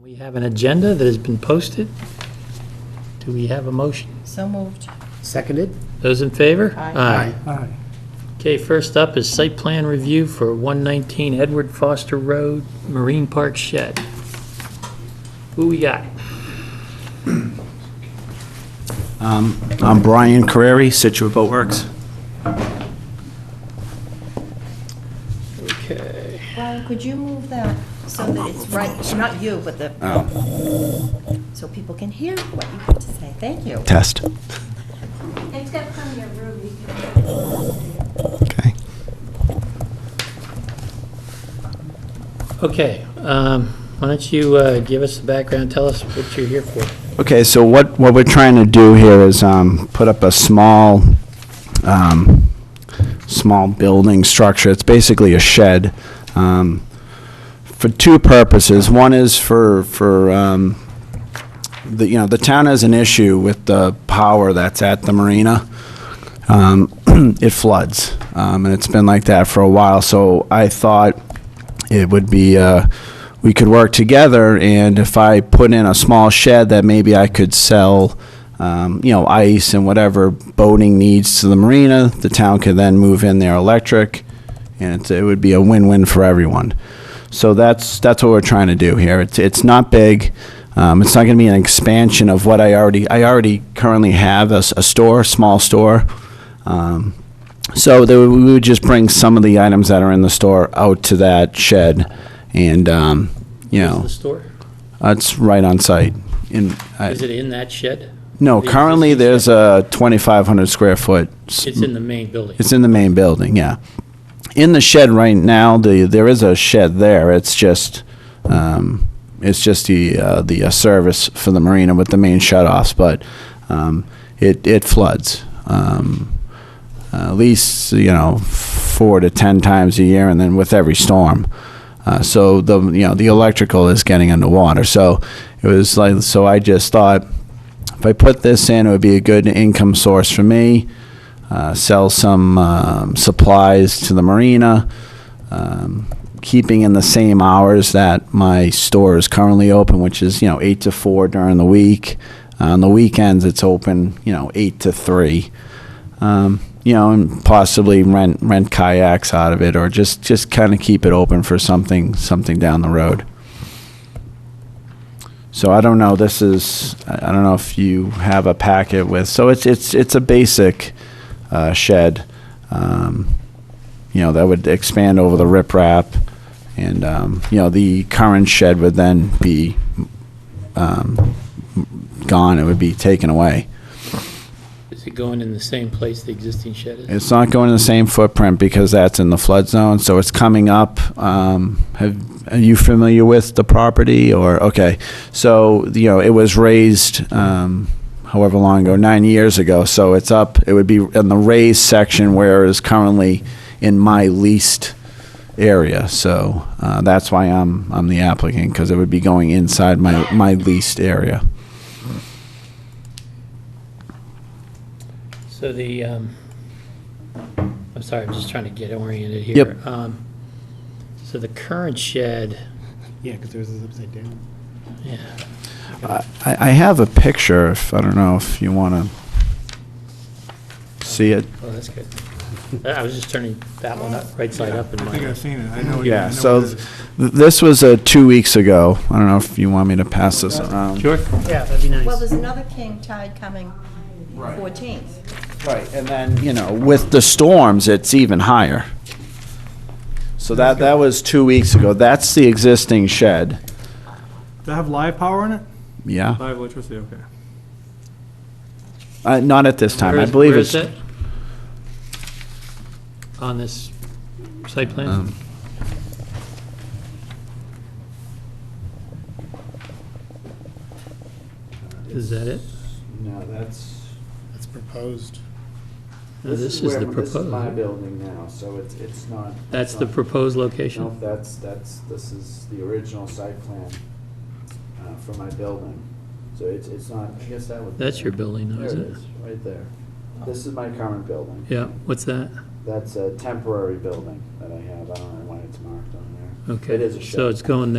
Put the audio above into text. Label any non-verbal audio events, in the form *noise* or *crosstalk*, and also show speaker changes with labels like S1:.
S1: We have an agenda that has been posted. Do we have a motion?
S2: So moved.
S3: Seconded?
S1: Those in favor?
S2: Aye.
S3: Aye.
S1: Okay, first up is site plan review for 119 Edward Foster Road, Marine Park Shed. Who we got?
S4: I'm Brian Carreri, Situate Boat Works.
S1: Okay.
S2: Brian, could you move that so that it's right, not you, but the, so people can hear what you have to say? Thank you.
S4: Test.
S5: Except from your room, you can.
S4: Okay.
S1: Okay, um, why don't you uh, give us the background, tell us what you're here for.
S4: Okay, so what, what we're trying to do here is um, put up a small, um, small building structure. It's basically a shed um, for two purposes. One is for, for, um, the, you know, the town has an issue with the power that's at the marina. Um, *clears throat* It floods, um, and it's been like that for a while. So I thought it would be, uh, we could work together, and if I put in a small shed that maybe I could sell, um, you know, ice and whatever boating needs to the marina, the town could then move in their electric, and it's- it would be a win-win for everyone. So that's, that's what we're trying to do here. It's, it's not big. Um, it's not going to be an expansion of what I already, I already currently have a, s- a store, small store. Um, so there, we would just bring some of the items that are in the store out to that shed, and um, you know
S1: The store?
S4: that's right on site. In I,
S1: Is it in that shed?
S4: no,
S1: the
S4: currently
S1: existing
S4: there's a 2,500 square foot. s-
S1: It's in the main building.
S4: it's in the main building, yeah. In the shed right now, the there is a shed there. It's just um, it's just the uh, the uh, service for the marina with the main shutoffs, but um, it it floods. Um, at least you know four to ten times a year, and then with every storm. Uh, so the you know the electrical is getting underwater. So it was like so I just thought if I put this in, it would be a good income source for me. Uh, sell some um, supplies to the marina. Um, keeping in the same hours that my store is currently open, which is you know eight to four during the week. Uh, on the weekends, it's open you know eight to three um, you know, and possibly rent rent kayaks out of it, or just just kind of keep it open for something something down the road. So I don't know. This is I I don't know if you have a packet with. So it's it's it's a basic uh, shed, um, you know, that would expand over the riprap, and um, you know the current shed would then be um, gone. It would be taken away.
S1: Is it going in the same place the existing shed is?
S4: It's not going in the same footprint because that's in the flood zone, so it's coming up. Um, have, are you familiar with the property or, okay. So, you know, it was raised, um, however long ago, nine years ago, so it's up. It would be in the raised section where it is currently in my leased area. So, uh, that's why I'm, I'm the applicant, because it would be going inside my, my leased area.
S1: So the, um, I'm sorry, I'm just trying to get oriented here.
S4: Yep.
S1: Um, So the current shed,
S3: Yeah, because theirs is upside down.
S1: yeah,
S4: I, I have a picture, if, I don't know if you want to see it.
S1: oh, that's good. I I was just turning that one up, right side up in
S6: I think
S1: my,
S6: I've seen it, I know. it- Oh, I
S4: Yeah,
S6: know
S4: so
S6: it is.
S4: th- this was uh, two weeks ago. I don't know if you want me to pass this around.
S1: sure? Yeah, that'd be
S2: Well,
S1: nice.
S2: there's another king tide coming 14th.
S4: Right, and then, you know, with the storms, it's even higher. So that, that was two weeks ago. That's the existing shed.
S6: Does that have live power in it?
S4: Yeah,
S6: Live electricity, okay.
S4: Uh, not at this time. I
S1: Where's-
S4: believe
S1: where
S4: it's.
S1: is that? On this site plan?
S4: Um,
S1: Is that it?
S4: No, that's.
S3: That's proposed.
S1: No, This is the proposed.
S4: building now, so it's, it's not.
S1: That's the proposed
S4: No,
S1: location?
S4: that's, that's, this is the original site plan uh, for my building. So it's, it's not, I guess that would. be-
S1: That's your building, though,
S4: There
S1: isn't it?
S4: is, Right there. This is my current building.
S1: Yeah, what's that?
S4: That's a temporary building that I have. I don't know why it's marked on there.
S1: Okay.
S4: It is a shed.
S1: So it's going there.